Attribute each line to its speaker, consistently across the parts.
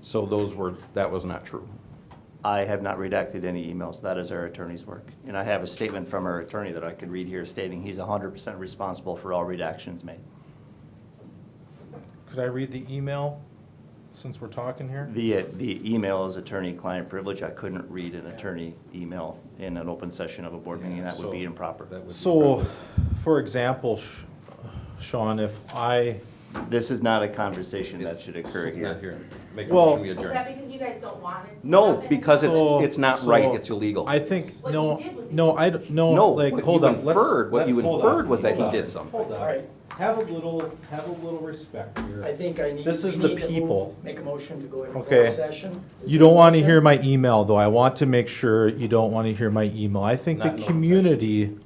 Speaker 1: So those were, that was not true.
Speaker 2: I have not redacted any emails. That is our attorney's work. And I have a statement from our attorney that I could read here stating he's 100% responsible for all redactions made.
Speaker 3: Could I read the email since we're talking here?
Speaker 2: The, the email is attorney-client privilege. I couldn't read an attorney email in an open session of a board meeting. That would be
Speaker 1: So
Speaker 2: improper.
Speaker 1: that would be
Speaker 3: So,
Speaker 1: proper.
Speaker 3: for example, Sh- Sean, if I,
Speaker 2: This is not a conversation that
Speaker 1: It's-
Speaker 2: should
Speaker 1: it's
Speaker 2: occur
Speaker 1: Not
Speaker 2: here.
Speaker 1: here. Make a
Speaker 3: Well-
Speaker 1: motion, we
Speaker 4: Is
Speaker 1: adjourn.
Speaker 4: that because you guys don't want it? to
Speaker 1: No,
Speaker 4: happen?
Speaker 1: because it's,
Speaker 3: So-
Speaker 1: it's not right,
Speaker 3: so-
Speaker 1: it's illegal.
Speaker 3: I think,
Speaker 4: What
Speaker 3: no,
Speaker 4: he did was he-
Speaker 3: no, I, don't-
Speaker 1: No,
Speaker 3: no, like,
Speaker 1: what
Speaker 3: hold
Speaker 1: you
Speaker 3: on, let's.
Speaker 1: inferred- what
Speaker 3: let's-
Speaker 1: you
Speaker 3: hold on,
Speaker 1: inferred was that he
Speaker 3: hold on,
Speaker 1: did something.
Speaker 3: Hold on, all right, have a little, have a little respect here.
Speaker 5: I think I need.
Speaker 3: This is
Speaker 5: we
Speaker 3: the
Speaker 5: need to move-
Speaker 3: people.
Speaker 5: Make a motion to go into
Speaker 3: Okay.
Speaker 5: closed session. Is
Speaker 3: You
Speaker 5: there
Speaker 3: don't
Speaker 5: a
Speaker 3: want to hear
Speaker 5: motion?
Speaker 3: my email, though. I want to make sure you don't want to hear my email. I think
Speaker 1: Not in
Speaker 3: the
Speaker 1: open
Speaker 3: community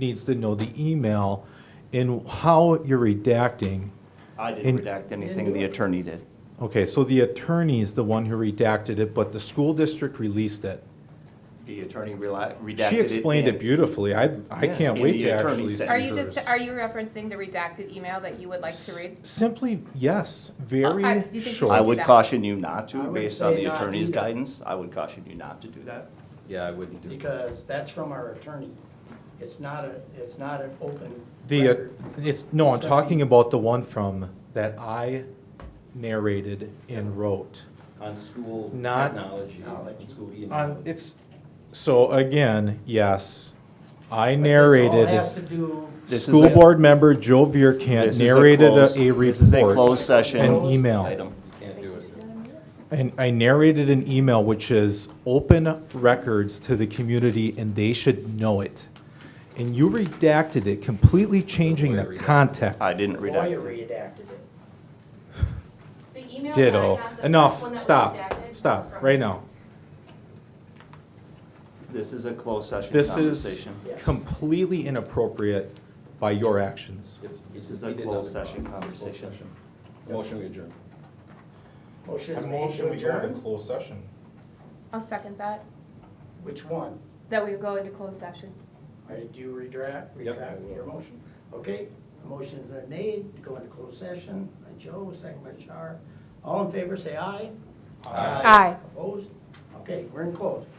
Speaker 3: needs to know the email and how you're redacting.
Speaker 2: I
Speaker 3: And-
Speaker 2: didn't redact anything. The attorney did.
Speaker 3: Okay, so the attorney's the one who redacted it, but the school district released it.
Speaker 2: The attorney rela- redacted it.
Speaker 3: She explained
Speaker 2: in-
Speaker 3: it beautifully. I, I
Speaker 1: Yeah,
Speaker 3: can't
Speaker 2: and
Speaker 3: wait
Speaker 2: the
Speaker 3: to
Speaker 2: attorney
Speaker 3: actually see
Speaker 2: said-
Speaker 3: hers.
Speaker 6: Are you just, are you referencing the redacted email that you would like to read? Oh,
Speaker 3: S- Simply, yes,
Speaker 6: I-
Speaker 3: very
Speaker 6: you think we should
Speaker 2: I
Speaker 3: short.
Speaker 6: do
Speaker 2: would
Speaker 6: that.
Speaker 2: caution you not
Speaker 5: I
Speaker 2: to,
Speaker 5: would
Speaker 2: based on
Speaker 5: say
Speaker 2: the
Speaker 5: not
Speaker 2: attorney's
Speaker 5: either.
Speaker 2: guidance. I would caution you not to do that.
Speaker 1: Yeah, I wouldn't do that.
Speaker 5: Because that's from our attorney. It's not a, it's not an open
Speaker 3: The, uh,
Speaker 5: record.
Speaker 3: it's, no, I'm
Speaker 5: It's not
Speaker 3: talking
Speaker 5: me.
Speaker 3: about the one from, that I narrated and wrote.
Speaker 1: On school
Speaker 3: Not-
Speaker 1: technology, on school email.
Speaker 3: On, it's, so again, yes, I
Speaker 5: But this all
Speaker 3: narrated,
Speaker 5: Has to do.
Speaker 2: This is
Speaker 3: school
Speaker 2: a-
Speaker 3: board member Joe Vierkant
Speaker 2: This is a
Speaker 3: narrated
Speaker 2: closed-
Speaker 3: uh, a- a
Speaker 2: This is a closed
Speaker 3: report.
Speaker 2: session.
Speaker 3: An email.
Speaker 2: item.
Speaker 1: You Can't do it.
Speaker 3: And I narrated an email which is open records to the community and they should know it. And you redacted it, completely changing the
Speaker 1: Lawyer redacted.
Speaker 3: context.
Speaker 2: I didn't redact
Speaker 5: Lawyer
Speaker 2: it.
Speaker 5: redacted it.
Speaker 4: The email that I got,
Speaker 3: Ditto.
Speaker 4: the first one that
Speaker 3: Enough,
Speaker 4: was redacted
Speaker 3: stop,
Speaker 4: was
Speaker 3: stop,
Speaker 4: from-
Speaker 3: right now.
Speaker 2: This is a closed session
Speaker 3: This is
Speaker 2: conversation.
Speaker 5: Yes.
Speaker 3: completely inappropriate by your actions.
Speaker 1: It's-
Speaker 2: This is a
Speaker 1: we did
Speaker 2: closed
Speaker 1: nothing
Speaker 2: session
Speaker 1: wrong. It's a closed
Speaker 2: conversation.
Speaker 1: session. Motion, we adjourn.
Speaker 5: Motion is made to adjourn.
Speaker 3: closed session.
Speaker 6: I'll second that,
Speaker 5: Which one?
Speaker 6: that we go into closed session.
Speaker 5: All right, do you retract,
Speaker 1: Yep, I
Speaker 5: retract
Speaker 1: will.
Speaker 5: your motion? Okay, a motion's been made to go into closed session by Joe, second by Char. All in favor, say aye.
Speaker 6: Aye.
Speaker 5: Opposed? Okay, we're in closed.